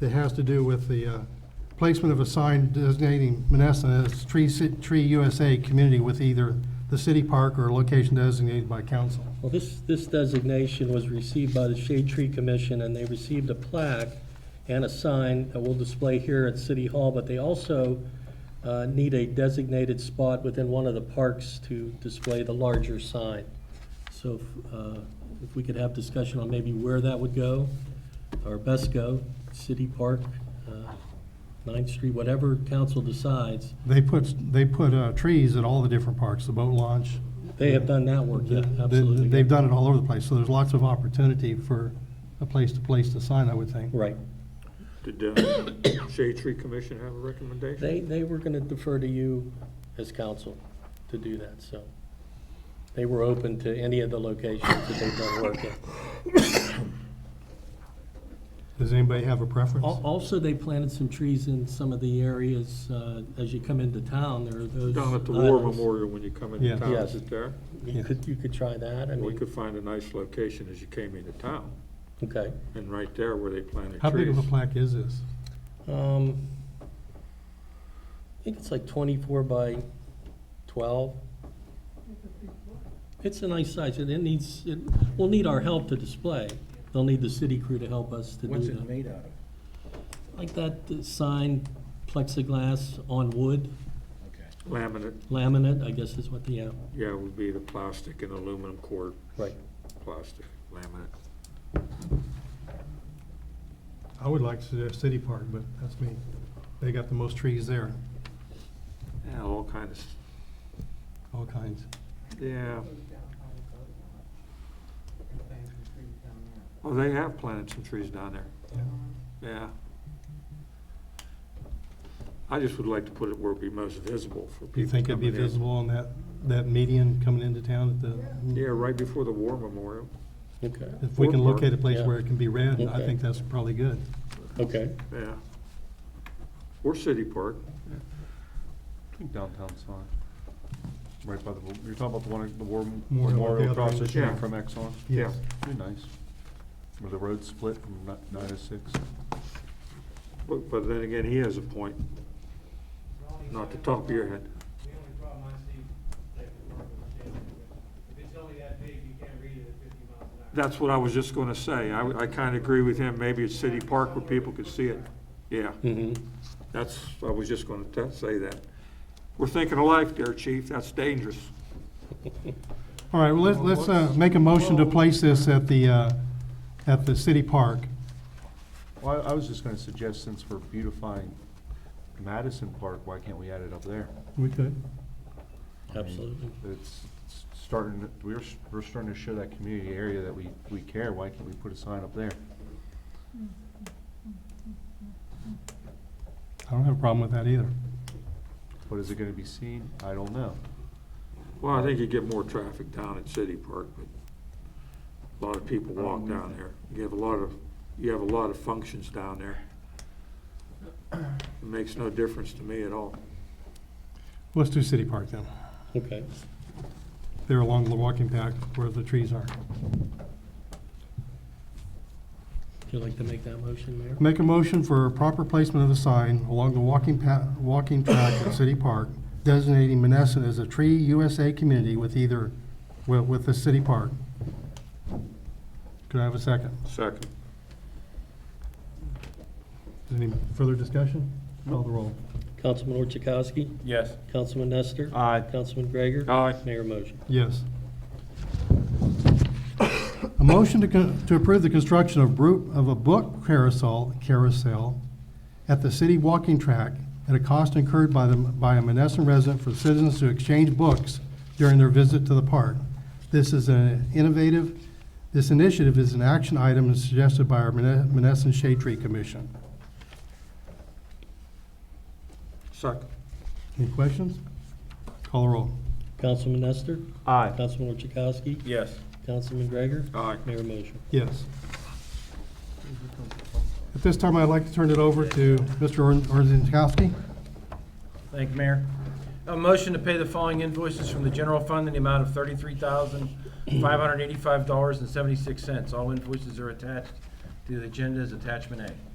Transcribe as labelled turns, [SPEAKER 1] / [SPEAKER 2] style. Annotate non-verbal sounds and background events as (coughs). [SPEAKER 1] that has to do with the uh, placement of a sign designating Menneson as Tree Ci- Tree USA community with either the city park or a location designated by council.
[SPEAKER 2] Well, this, this designation was received by the Shade Tree Commission, and they received a plaque and a sign that we'll display here at City Hall, but they also uh, need a designated spot within one of the parks to display the larger sign. So if, uh, if we could have discussion on maybe where that would go, or best go, City Park, uh, Ninth Street, whatever council decides,
[SPEAKER 1] They put, they put uh, trees at all the different parks, the boat launch.
[SPEAKER 2] they have done that work, yeah,
[SPEAKER 1] They- they-
[SPEAKER 2] absolutely.
[SPEAKER 1] They've done it all over the place, so there's lots of opportunity for a place to place the sign, I would think.
[SPEAKER 2] Right.
[SPEAKER 3] Did uh, (coughs) Shade Tree Commission have a recommendation?
[SPEAKER 2] They, they were gonna defer to you as council to do that, so. They were open to any of the locations that they've done work at.
[SPEAKER 1] Does anybody have a preference?
[SPEAKER 2] Al- Also, they planted some trees in some of the areas, uh, as you come into town, there are those.
[SPEAKER 3] Down at the War
[SPEAKER 2] islands.
[SPEAKER 3] Memorial when you come into
[SPEAKER 1] Yeah.
[SPEAKER 3] town,
[SPEAKER 2] Yes.
[SPEAKER 3] is it there?
[SPEAKER 2] You could, you could try that, I
[SPEAKER 3] We
[SPEAKER 2] mean,
[SPEAKER 3] could find a nice location as you came into town,
[SPEAKER 2] okay.
[SPEAKER 3] and right there where they planted trees.
[SPEAKER 1] How big of a plaque is this?
[SPEAKER 2] Um, I think it's like twenty-four by twelve. It's a nice size, and it needs, it, we'll need our help to display. They'll need the city crew to help us to do that.
[SPEAKER 4] What's it made out of?
[SPEAKER 2] Like that uh, sign, plexiglass on wood,
[SPEAKER 4] Okay.
[SPEAKER 3] Laminate,
[SPEAKER 2] laminate, I guess is what the, uh, yeah,
[SPEAKER 3] yeah, would be the plastic and aluminum cord,
[SPEAKER 2] right.
[SPEAKER 3] plastic, laminate.
[SPEAKER 1] I would like to suggest City Park, but that's me. They got the most trees there,
[SPEAKER 3] Yeah, all kinds of,
[SPEAKER 1] all kinds.
[SPEAKER 3] yeah. Oh, they have planted some trees down there,
[SPEAKER 1] Yeah.
[SPEAKER 3] yeah. I just would like to put it where it'd be most visible for people
[SPEAKER 1] Do you think it'd be
[SPEAKER 3] coming in.
[SPEAKER 1] visible on that, that median coming into town at the?
[SPEAKER 3] Yeah, right before the war memorial.
[SPEAKER 2] Okay,
[SPEAKER 1] If we can locate a place
[SPEAKER 2] Yeah.
[SPEAKER 1] where it can be read, I
[SPEAKER 2] Okay.
[SPEAKER 1] think that's probably good.
[SPEAKER 2] okay.
[SPEAKER 3] Yeah. Or City Park.
[SPEAKER 5] I think downtown's fine. Right by the, you're talking about the one, at the war
[SPEAKER 1] Memorial, the
[SPEAKER 5] memorial
[SPEAKER 1] other
[SPEAKER 5] across the
[SPEAKER 1] end.
[SPEAKER 3] Yeah.
[SPEAKER 5] street from Exxon?
[SPEAKER 1] Yes.
[SPEAKER 5] Be nice. Where the road split from ni- nine to six.
[SPEAKER 3] But, but then again, he has a point. Not the top of your head.
[SPEAKER 6] The only problem I see, like, if it's only that big, you can't read it at fifty miles an hour.
[SPEAKER 3] That's what I was just gonna say. I, I kinda agree with him. Maybe it's City Park where people could see it. Yeah,
[SPEAKER 2] Mm-hmm.
[SPEAKER 3] that's, I was just gonna t- say that. We're thinking of life there, chief. That's dangerous.
[SPEAKER 1] All right, well, let's, let's, uh, make a motion to place this at the, uh, at the City Park.
[SPEAKER 5] Well, I I was just gonna suggest, since we're beautifying Madison Park, why can't we add it up there?
[SPEAKER 1] We could.
[SPEAKER 5] I mean,
[SPEAKER 2] Absolutely.
[SPEAKER 5] It's it's starting, to- we're, s- we're starting to show that community area that we, we care. Why can't we put a sign up there?
[SPEAKER 1] I don't have a problem with that either.
[SPEAKER 5] But is it gonna be seen? I don't know.
[SPEAKER 3] Well, I think you get more traffic down at City Park, but a lot of people
[SPEAKER 5] Um,
[SPEAKER 3] walk down there. You have a lot of, you have a lot of functions down there. It makes no difference to me at all.
[SPEAKER 1] Let's do City Park then.
[SPEAKER 2] Okay,
[SPEAKER 1] There along the walking path where the trees are.
[SPEAKER 2] would you like to make that motion, Mayor?
[SPEAKER 1] Make a motion for proper placement of the sign along the walking pa, walking track at City Park designating Menneson as a Tree USA community with either, with, with the city park. Could I have a second?
[SPEAKER 3] Second.
[SPEAKER 1] Is there Any further discussion? Call the roll.
[SPEAKER 2] Councilman Orchakowski?
[SPEAKER 5] Yes.
[SPEAKER 2] Councilman Nestor?
[SPEAKER 5] Aye.
[SPEAKER 2] Councilman Gregor?
[SPEAKER 3] Aye.
[SPEAKER 2] Mayor motion.
[SPEAKER 1] Yes. A motion to, con- to approve the construction of bru, of a book carousel, carousel at the city walking track at a cost incurred by the, by a Menneson resident for citizens to exchange books during their visit to the park. This is an innovative, this initiative is an action item and suggested by our Menne- Menneson Shade Tree Commission.
[SPEAKER 3] Second.
[SPEAKER 1] Any questions? Call the roll.
[SPEAKER 2] Councilman Nestor?
[SPEAKER 5] Aye.
[SPEAKER 2] Councilman Orchakowski?
[SPEAKER 5] Yes.
[SPEAKER 2] Councilman Gregor?
[SPEAKER 3] Aye.
[SPEAKER 2] Mayor motion.
[SPEAKER 1] Yes. At this time, I'd like to turn it over to Mr. Orzinkowski.
[SPEAKER 7] Thank you, Mayor. A motion to pay the following invoices from the general fund in the amount of thirty-three thousand, five hundred eighty-five dollars and seventy-six cents. All invoices are attached to the agenda as attachment A.